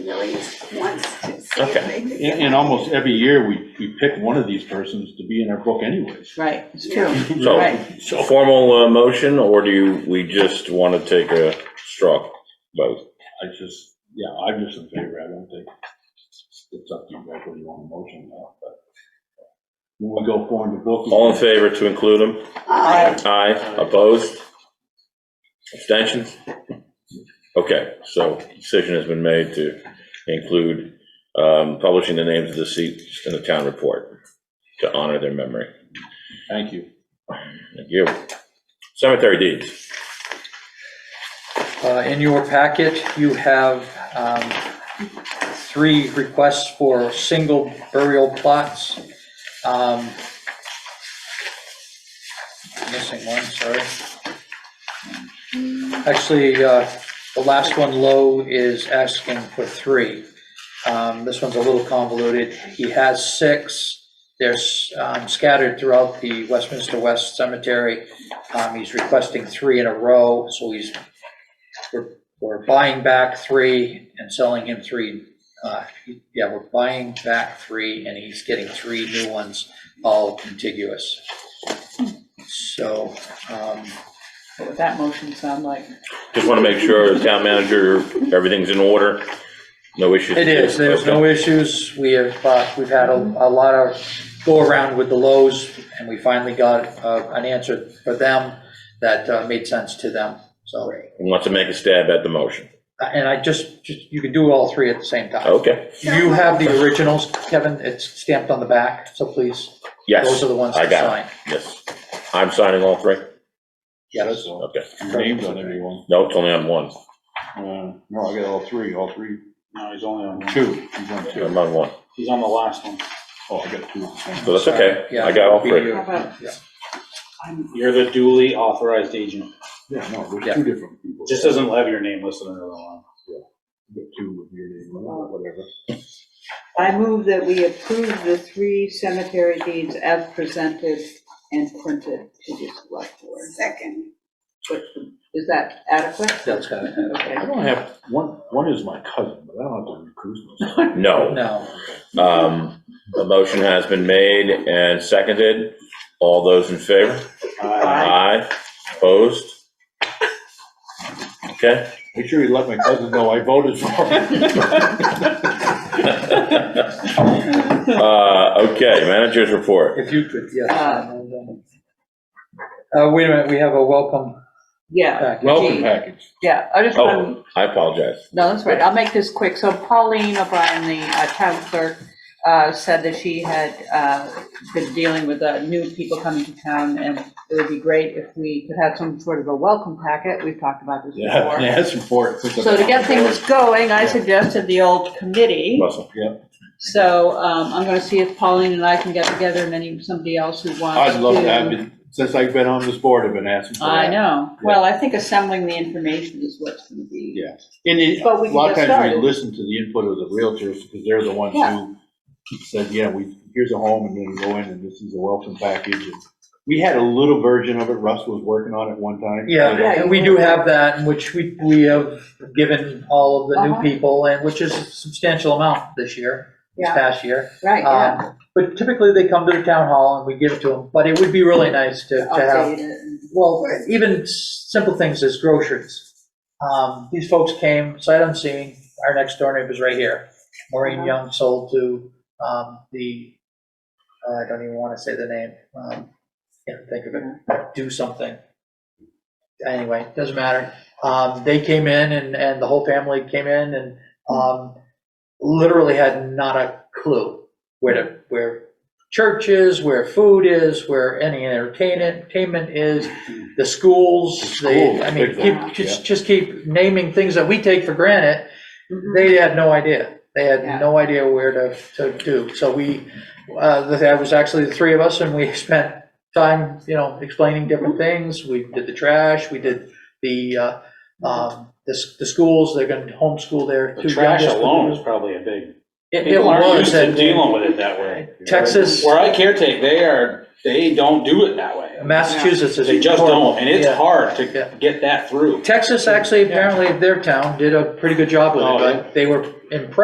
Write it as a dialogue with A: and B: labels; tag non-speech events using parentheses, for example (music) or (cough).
A: really just wants to see if
B: Okay.
A: they can
B: And, and almost every year, we, we pick one of these persons to be in our book (laughs) anyways.
C: Right, it's
A: Yeah.
C: true.
D: So,
C: Right.
D: so formal uh, motion, or do you, we just want to take a straw vote?
B: I just, yeah, I'm just in favor, I don't think, it's up to you guys whether you want a motion or not, but when we go forward the book.
D: All in favor to include them?
A: Aye.
D: Aye, opposed? Abstentions? Okay, so decision has been made to include um, publishing the names of the seats in the town report to honor their memory.
B: Thank you.
D: Thank you. Cemetery deeds.
E: Uh, In your packet, you have um, three requests for single burial plots. Um, Missing one, sorry. Actually, uh, the last one, Lowe, is asking for three. Um, This one's a little convoluted. He has six. They're s- um, scattered throughout the Westminster West Cemetery. Um, He's requesting three in a row, so he's we're, we're buying back three and selling him three. uh, Yeah, we're buying back three and he's getting three new ones, all contiguous. So, um,
C: What would that motion sound like?
D: Just want to make sure the town manager, everything's in order, no issues.
E: it is, there's no issues. We have, uh, we've had a, a lot of go around with the lows and we finally got uh, an answer for them that uh, made sense to them, so. uh,
D: Wants to make a stab at the motion.
E: And I just, just, you can do all three at the same time.
D: Okay,
E: You have the originals, Kevin, it's stamped on the back, so please.
D: yes.
E: Those are the ones
D: I
E: to
D: got
E: sign.
D: it. Yes. I'm signing all three?
E: Yes.
B: So,
D: Okay.
B: your Names on everyone,
D: No, it's only on one.
B: uh, no, I got all three, all three,
F: No, he's only on one.
B: two, he's on two.
D: I'm on one.
F: He's on the last one.
B: Oh, I got two.
D: So that's okay.
E: Yeah,
D: I got all
E: it'll be
D: three.
E: you.
A: How about-
E: Yeah.
A: I'm-
F: You're the duly authorized agent.
B: Yeah, no,
E: Yeah.
B: there's two different people.
F: It Just doesn't have your name listed under the line.
B: Got Two with your name on it, or whatever.
A: I move that we approve the three cemetery deeds as presented and printed to the select board. Second. Is that adequate?
E: That's kind of,
B: I
A: Okay.
B: don't have, one, one is my cousin, but I don't have to recruit myself. (laughs)
D: No.
E: no,
D: Um, The motion has been made and seconded. All those in favor?
F: Uh,
D: Aye. Opposed? Okay.
B: Make sure you let my cousin know I voted for him.
D: Uh, Okay, manager's
E: (laughs)
D: report.
E: if you could, yes.
A: Uh,
E: Uh, wait a minute, we have a welcome
A: Yeah.
E: back.
B: Welcome
A: Gee,
B: package.
A: Yeah, I just want to
D: Oh, I apologize.
A: No, that's right. I'll make this quick. So Pauline O'Brien, the uh, town clerk, uh, said that she had uh, been dealing with uh, new people coming to town, and it would be great if we could have some sort of a welcome packet. We've talked about this
B: Yeah, (laughs)
A: before.
B: yeah, that's important.
A: So to get things going, I suggested the old committee.
D: Russell.
A: So um, I'm going to see if Pauline and I can get together and any, somebody else who wants to.
B: I'd love to, I've been, since I've been on this board, I've been asking for
A: I
B: that.
A: know. Well, I think assembling the information is what's going to be.
B: Yeah. And it-
A: But we
B: a
A: can
B: lot of
A: get
B: times we
A: started.
B: listen to the input of the realtors, because they're the ones
A: Yeah.
B: who said, yeah, we, here's a home, and then go in, and this is a welcome package. And We had a little version of it, Russ was working on it one time.
E: Yeah, and we do have that, in which we, we have given all of the
A: Uh-huh.
E: new people, and which is a substantial amount this year, this
A: Yeah.
E: past year.
A: Right, yeah.
E: Um, But typically, they come to the town hall and we give it to them, but it would be really nice Uh, to, to have
A: Update it. and-
E: Well, even s- simple things as groceries. Um, These folks came sight unseen, our next door neighbor's right here. Maureen
A: Uh-huh.
E: Young sold to um, the, uh, I don't even want to say the name, um, can't think of it, do something. Anyway, doesn't matter. Um, They came in and, and the whole family came in and um, literally had not a clue where to, where church is, where food is, where any entertainment, entertainment is, the schools, they, I mean,
B: Schools, big
E: keep, just, just keep naming things that we take for granted.
A: Mhm.
E: They had no idea. They
A: Yeah.
E: had no idea where to, to do. So we, uh, that was actually the three of us and we (laughs) spent time, you know, explaining different things. We did the trash, we did the, uh, um, the, s- the schools, they're gonna homeschool their
F: The
E: two
F: trash
E: youngest.
F: alone is probably a big,
E: It it
F: people aren't
E: was,
F: used to
E: and
F: dealing with it that way.
E: Texas,
F: Where I caretake, they are They don't do it that way.
E: Massachusetts is.
F: They just
E: horrible.
F: don't, and it's
E: Yeah.
F: hard to
E: Yeah.
F: get that through.
E: Texas, actually, apparently their town did a pretty good job with
F: Oh,
E: it,
F: yeah.
E: but they were impressed